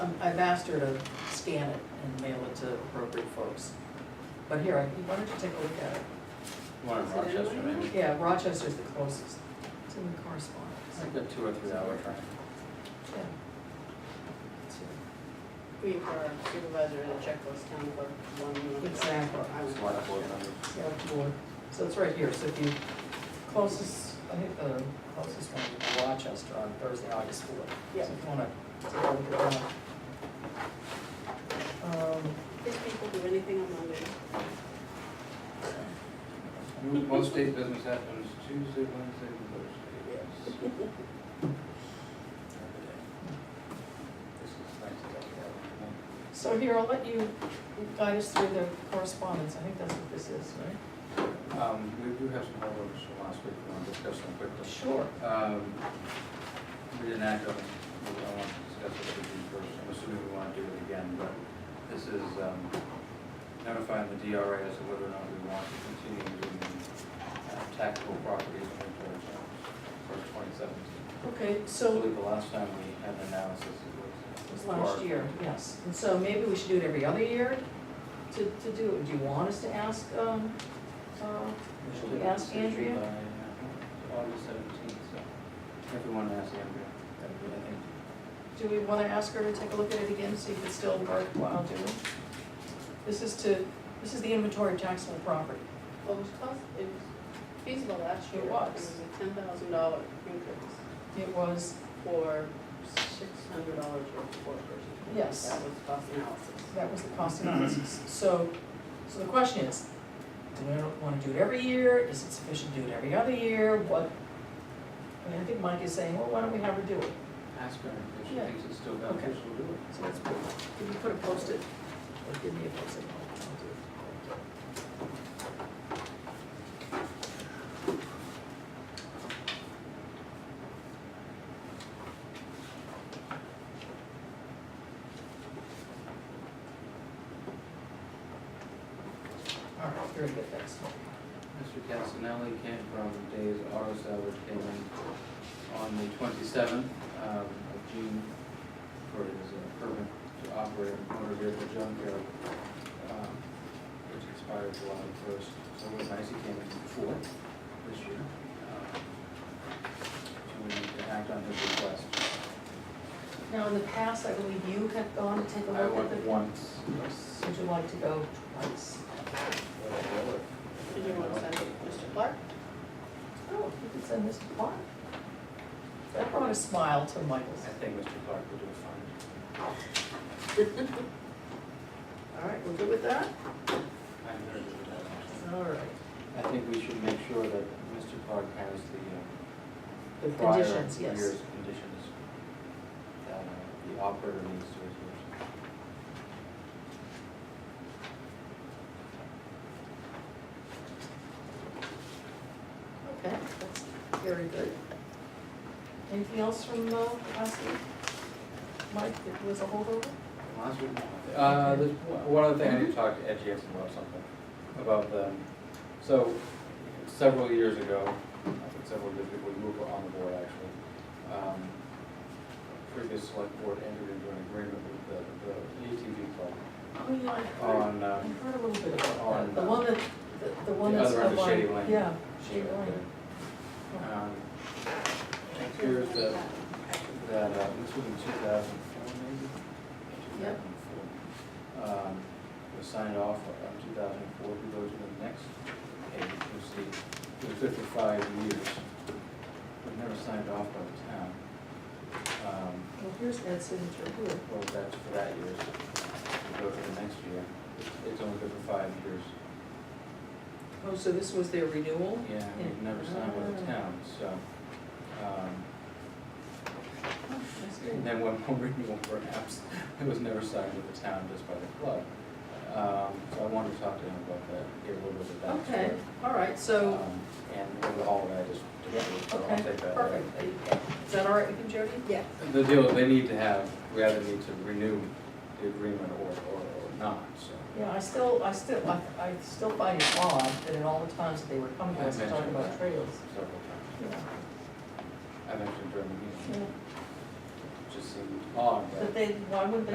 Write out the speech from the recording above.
Um, I've asked her to scan it and mail it to appropriate folks. But here, I why don't you take a look at it? One in Is it in Rochester, Wayne? maybe. Yeah, Rochester's the closest. It's in the correspondence. It's like a two or three hour train. Yeah. It's- We, for our supervisor, the checklist, town clerk, one. one. Exactly. I was- It's a lot of board members. Select board. So it's right here, so if you, closest, I think the closest one would be Rochester on Thursday, August fourth. Yeah. So if you wanna take a look at that. Um, These people do anything on Monday. Most state business happens Tuesday, Wednesday, and Thursday. This is nice to have that. So here, I'll let you guide us through the correspondence, I think that's what this is, right? Um, we do have some holdovers from last week, we want to discuss them quickly. Sure. Um, we didn't act on, it. we don't want to discuss it with you first, I'm assuming we want to do it again, but this is, um, notifying the DRA as to whether or not we want to continue doing uh, taxable properties in winter for twenty seventeen. Okay, I so believe the last time we had an analysis, it it was was. last year, yes, and so maybe we should do it every other year to, to do, it. do you want us to ask, um, uh, We should Ask Andrea? by, uh, August seventeenth, so if we want to ask Andrea, that would be, I think, Do we want to ask her to take a look at it again, see if it's still worthwhile doing? This is to, this is the inventory of taxable property. Well, it was cost, it was feasible last year. It was. It was a ten thousand dollar increase It was, for six hundred dollars worth of work or something. Yes. That was cost analysis. that was the cost analysis. So, so the question is, do we want to do it every year? Is it sufficient to do it every other year? What? I mean, I think Mike is saying, well, why don't we have her do it? ask her if she Yeah. thinks it's still beneficial to do it. So that's pretty, can you put a post-it? Or give me a post-it. I'll do it. All right, very good, thanks. Mr. Castanelli came from Dave's Auto Sale, which came in on the twenty-seventh um, of June for his uh, permit to operate a motor vehicle junkyard, um, which expired July first. So it was nice, he came in before this year. um, So we need to act on his request. Now, in the past, I believe you had gone to take a I look at went the. once. Would you like to go twice? Did you want to send it, Mr. Clark? Oh, you could send this to Clark. That brought a smile to Michael's. I think Mr. Clark would do a fine. All right, we're good with that? I'm very good with that, actually. All right. I think we should make sure that Mr. Clark has the The uh, prior conditions, year's yes. conditions that uh, the operator needs to adhere Okay, that's very good. Anything else from uh, last week? Mike, that was a holdover? to. Last week, uh, there's one- one other thing, I need to talk to Ed Jackson about something, about the, so several years ago, I think several years ago, we were on the board actually. um, Previous select board entered into an agreement with the, the ATV club Oh, yeah, I heard, on, I um, heard a little bit about on, that. The uh, one that, the- the one the that's. other end of up on- Shady Lane. Yeah, Shady Lane. Um, It appears that, that, uh, this was in two thousand four maybe? Yep. 2004. Um, was signed off on two thousand four, we go to the next page, you see, it was fifty-five years. But never signed off by the town. Um, Well, here's Ed's signature here. well, that's for that year, we go to the next year, It's- it's only good for five years. Oh, so this was their renewal? Yeah, we've never signed with the town, so, um, Oh, That's good. And then one more renewal perhaps, it was never signed with the town, just by the club. Um, so I wanted to talk to him about that, get a little bit of that. Okay, all right, so. And over all of that, just, just, I'll Okay, take that. perfect. Is that all right with you, Jody? Yes. The deal, is they need to have, we either need to renew the agreement or, or, or not, so. Yeah, I still, I still, I, I still find it odd that in all the times that they were coming to us I and talking mentioned about that. trails. Several times, I mentioned during the meeting, it just seemed odd, but. But they, why wouldn't they